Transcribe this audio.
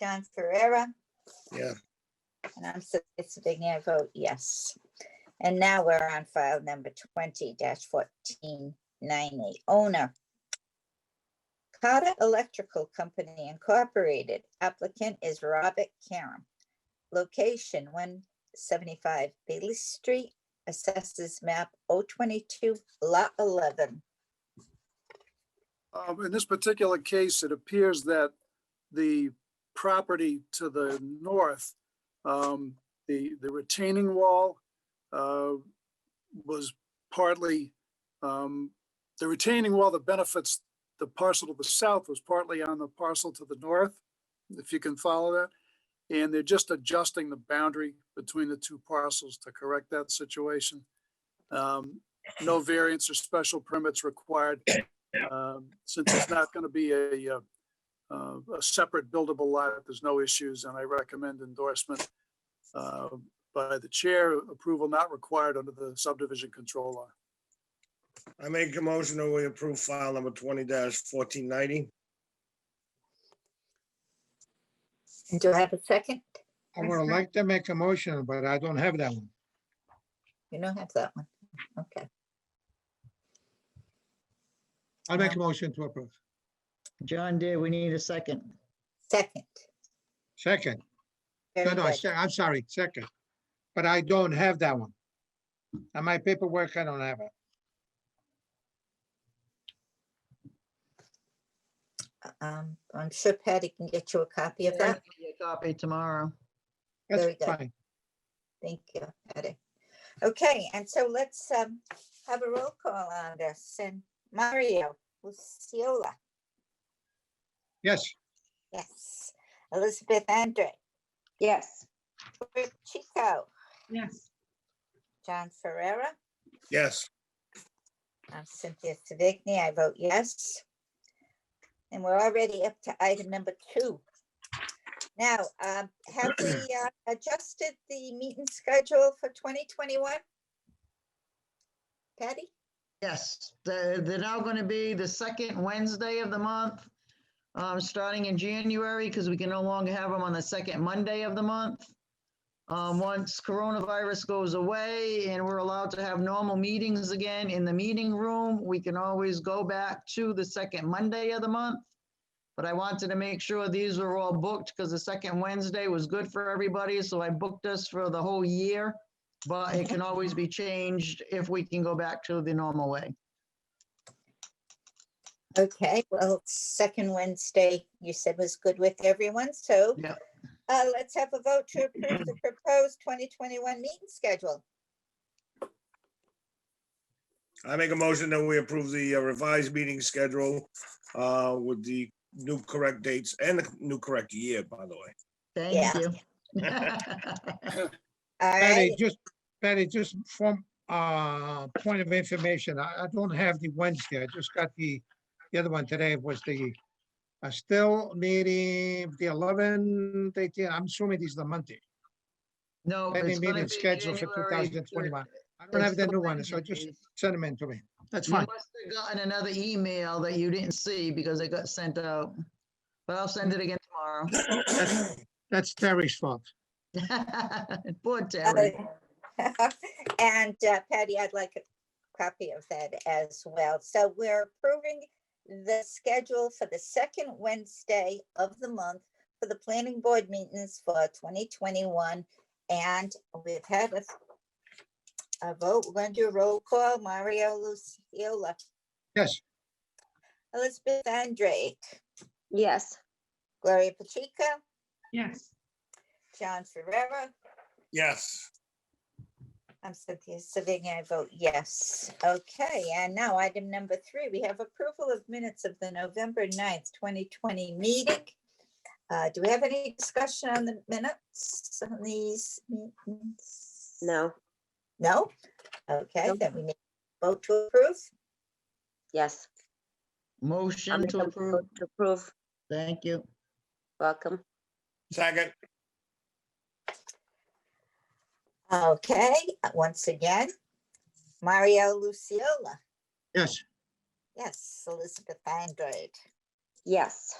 John Ferreira, Yeah, and I'm sitting there, vote yes. And now we're on file number twenty fourteen ninety, owner. Carter Electrical Company Incorporated, applicant is Robert Karam. Location one seventy-five Bailey Street, assesses map 022, lot eleven. Um, in this particular case, it appears that the property to the north, um, the, the retaining wall, uh, was partly, um, the retaining wall that benefits the parcel to the south was partly on the parcel to the north, if you can follow that. And they're just adjusting the boundary between the two parcels to correct that situation. Um, no variance or special permits required um, since it's not going to be a, uh, uh, a separate buildable lot, there's no issues, and I recommend endorsement uh, by the chair, approval not required under the subdivision control law. I make a motion that we approve file number twenty fourteen ninety. And do I have a second? I would like to make a motion, but I don't have that one. You don't have that one, okay. I'll make a motion to approve. John did, we need a second. Second. Second, no, Very no, good. se- I'm sorry, second. But I don't have that one. On my paperwork, I don't have it. Um, I'm sure Patty can get you a copy of I'll that. give you a Copy tomorrow. Very That's good. fine. Thank you, Patty. Okay, and so let's um have a roll call on this and Mario Luciola, Yes, yes. Elizabeth Andre, Yes. Rick Chico, Yes. John Ferrera, Yes, I'm Uh, Cynthia Savigny, I vote yes. And we're already up to item number two. Now, um, have we uh, adjusted the meeting schedule for 2021? Patty? Yes, they're, they're now going to be the second Wednesday of the month, um, starting in January, because we can no longer have them on the second Monday of the month. Um, once coronavirus goes away and we're allowed to have normal meetings again in the meeting room, we can always go back to the second Monday of the month. But I wanted to make sure these were all booked, because the second Wednesday was good for everybody, so I booked us for the whole year. But it can always be changed if we can go back to the normal way. Okay, well, second Wednesday, you said was good with everyone, so. Yeah. Uh, let's have a vote to approve the proposed twenty twenty-one meeting schedule. I make a motion that we approve the uh, revised meeting schedule uh, with the new correct dates and the new correct year, by the way. Thank Yeah. you. All Patty, right, just, Patty, just from, uh, point of information, I, I don't have the Wednesday. I just got the, the other one today was the, I still meeting the 11th, 18th. I'm assuming this is the Monday. No. Any it's gonna meeting be scheduled for January 2021. thir- I don't have it's the still new one, so just Wednesdays. send them in to me. That's You fine. must have gotten another email that you didn't see because it got sent out. But I'll send it again tomorrow. That's Terry's fault. Poor Terry. and uh, Patty, I'd like a copy of that as well. So we're approving the schedule for the second Wednesday of the month for the planning board meetings for twenty twenty-one. And we've had a a vote, we're going to do a roll call, Mario Luciola, Yes, Elizabeth Andrade, Yes. Gloria Pacheco, Yes. John Ferrera, Yes, I'm Cynthia Savigny, I vote yes. Okay, and now item number three, we have approval of minutes of the November 9th, twenty twenty meeting. Uh, do we have any discussion on the minutes on these? meetings? No, No? Okay, Nope. then we need to vote to approve. yes. I'll Motion make to a approve. vote To approve, Thank you. welcome. second, Okay, uh, once again, Mario Luciola, yes, yes, Elizabeth Andrade, Yes.